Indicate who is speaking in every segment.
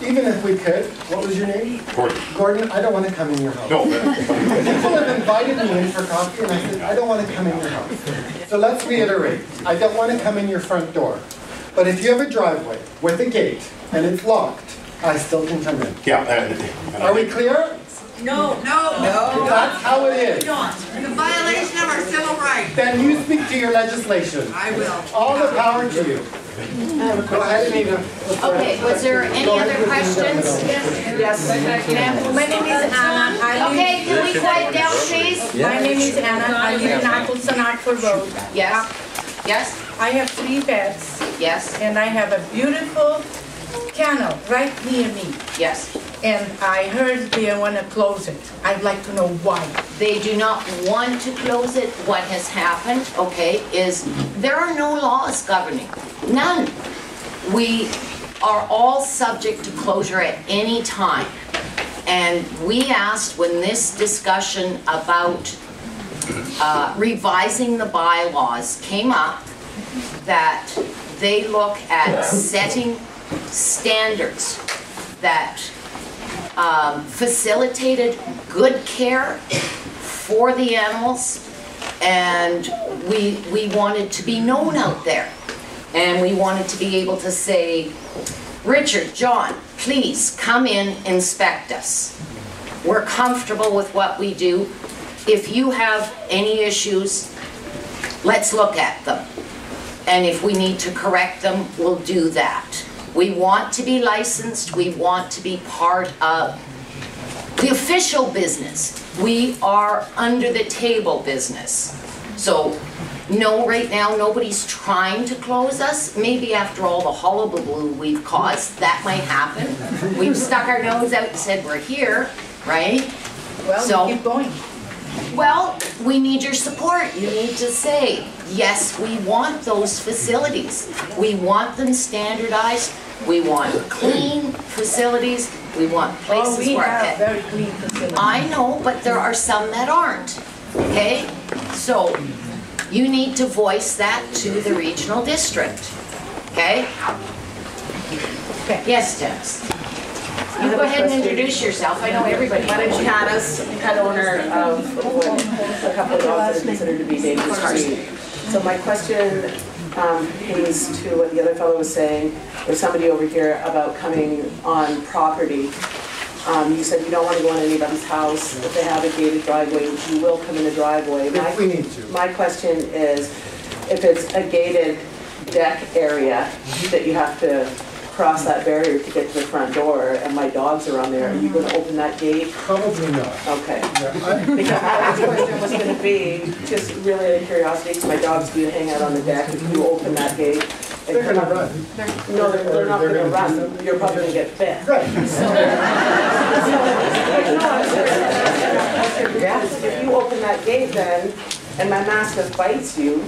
Speaker 1: Even if we could, what was your name?
Speaker 2: Gordon.
Speaker 1: Gordon, I don't want to come in your house.
Speaker 2: No, but-
Speaker 1: People have invited me in for coffee, and I said, I don't want to come in your house. So let's reiterate, I don't want to come in your front door. But if you have a driveway with a gate and it's locked, I still can come in.
Speaker 2: yeah. and- and I
Speaker 1: Are we
Speaker 2: think-
Speaker 1: clear?
Speaker 3: No, no,
Speaker 1: That's how it
Speaker 3: you
Speaker 1: is.
Speaker 3: don't. The violation of our civil rights.
Speaker 1: Then you speak to your legislation.
Speaker 3: I will.
Speaker 1: All the power to you. Go ahead, Anita.
Speaker 4: Okay, was there any other questions?
Speaker 5: Yes, ma'am. My name is Anna. I live-
Speaker 4: Okay, can we quiet down, please?
Speaker 5: My name is Anna. I live in Akulsanakpur Road.
Speaker 4: Yes, yes,
Speaker 5: I have three pets
Speaker 4: yes,
Speaker 5: and I have a beautiful kennel right near me.
Speaker 4: yes.
Speaker 5: And I heard they want to close it. I'd like to know why.
Speaker 4: They do not want to close it. What has happened, okay, is there are no laws governing, none. We are all subject to closure at any time. And we asked when this discussion about uh, revising the bylaws came up, that they look at setting standards that um, facilitated good care for the animals, and we, we wanted to be known out there. And we wanted to be able to say, Richard, John, please come in, inspect us. We're comfortable with what we do. If you have any issues, let's look at them. And if we need to correct them, we'll do that. We want to be licensed, we want to be part of the official business. We are under the table business. So, no, right now, nobody's trying to close us. Maybe after all the hullabaloo we've caused, that might happen. We've stuck our nose out and said we're here, right?
Speaker 5: Well,
Speaker 4: So-
Speaker 5: we keep going.
Speaker 4: Well, we need your support. You need to say, yes, we want those facilities. We want them standardized. We want clean facilities. We want
Speaker 5: Oh,
Speaker 4: places
Speaker 5: we
Speaker 4: where
Speaker 5: have
Speaker 4: it.
Speaker 5: very clean facility.
Speaker 4: I know, but there are some that aren't, okay? So you need to voice that to the regional district, okay?
Speaker 5: Okay.
Speaker 4: Yes, Dennis? You go ahead and introduce yourself. I know everybody.
Speaker 6: My name's Janice, pet owner of what a couple of dogs that are considered to be dangerous breed. So my question um, is to what the other fellow was saying, there's somebody over here about coming on property. Um, You said you don't want to go in anybody's house, if they have a gated driveway, you will come in the driveway.
Speaker 1: If we need to.
Speaker 6: My question is, if it's a gated deck area that you have to cross that barrier to get to the front door, and my dogs are on there, are you going to open that gate?
Speaker 1: Probably not.
Speaker 6: Okay.
Speaker 1: Yeah, I-
Speaker 6: Because my last question was gonna be, just really out of curiosity, 'cause my dogs do hang out on the deck, if you open that gate. and
Speaker 1: They're gonna
Speaker 6: come-
Speaker 1: run.
Speaker 6: No, they're, they're not
Speaker 1: They're
Speaker 6: gonna
Speaker 1: gonna do
Speaker 6: run, you're probably gonna get bit.
Speaker 1: Right.
Speaker 6: If you open that gate then, and my mastiff bites you,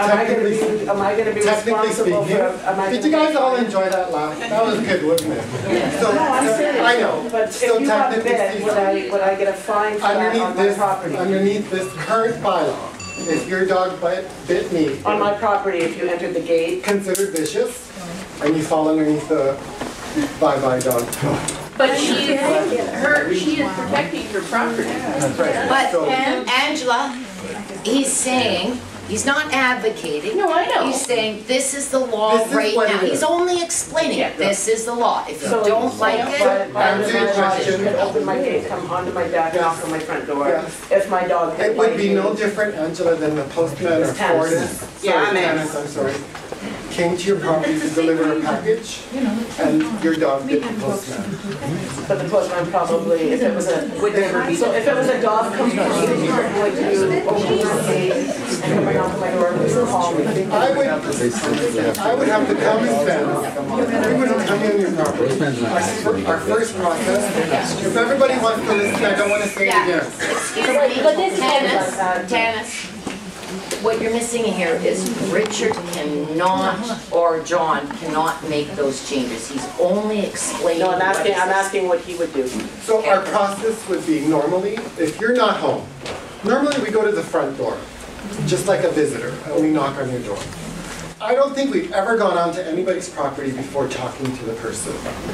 Speaker 6: am I gonna be, am I gonna be
Speaker 1: Technically
Speaker 6: responsible
Speaker 1: speaking,
Speaker 6: for, am I?
Speaker 1: did
Speaker 6: gonna
Speaker 1: you guys
Speaker 6: be-
Speaker 1: all enjoy that laugh? That was good, wasn't it? So,
Speaker 6: No, I'm
Speaker 1: so-
Speaker 6: serious.
Speaker 1: I know.
Speaker 6: But if
Speaker 1: So
Speaker 6: you got
Speaker 1: technically
Speaker 6: bit, would I,
Speaker 1: speaking,
Speaker 6: would I get a fine for that
Speaker 1: Underneath
Speaker 6: on my
Speaker 1: this,
Speaker 6: property?
Speaker 1: underneath this current bylaw, if your dog bit, bit me,
Speaker 6: On my property, if you entered the gate,
Speaker 1: considered vicious, and you fall underneath the bye-bye dog.
Speaker 7: But she is, her, she is protecting her property.
Speaker 4: But
Speaker 1: So-
Speaker 4: Angela, he's saying, he's not advocating.
Speaker 7: No, I know.
Speaker 4: He's saying, this is the law
Speaker 1: This is
Speaker 4: right
Speaker 1: what
Speaker 4: now.
Speaker 1: it is.
Speaker 4: He's only explaining,
Speaker 6: Yeah.
Speaker 4: this is the law. If you
Speaker 6: So-
Speaker 4: don't like it,
Speaker 6: But my
Speaker 1: Answer your question.
Speaker 6: could open my gate, come onto my deck, knock on my front door,
Speaker 1: Yes.
Speaker 6: if my dog had
Speaker 1: It would be
Speaker 6: biting
Speaker 1: no
Speaker 6: me.
Speaker 1: different, Angela, than the postman or
Speaker 6: It's tennis.
Speaker 1: Fortis.
Speaker 6: Yeah,
Speaker 1: sorry,
Speaker 6: I'm in.
Speaker 1: tennis, I'm sorry. Came to your property to deliver a package, and your dog bit the postman.
Speaker 6: But the postman probably, if it was a, would never be. So if it was a dog complaining, would you open your gate and come knock on my door, and would call me?
Speaker 1: I would, I would have to come and fence. We wouldn't come in your property. Our fir- Our first process, if everybody wants to listen, I don't want to say it
Speaker 4: yeah.
Speaker 1: again.
Speaker 4: Excuse me,
Speaker 6: But this-
Speaker 4: Tanis, Tanis, what you're missing here is Richard cannot, or John cannot make those changes. He's only explaining.
Speaker 6: No, I'm asking,
Speaker 4: what
Speaker 6: I'm
Speaker 4: is-
Speaker 6: asking what he would do.
Speaker 1: So our process would be normally, if you're not home, normally we go to the front door, just like a visitor, and we knock on your door. I don't think we've ever gone onto anybody's property before talking to the person.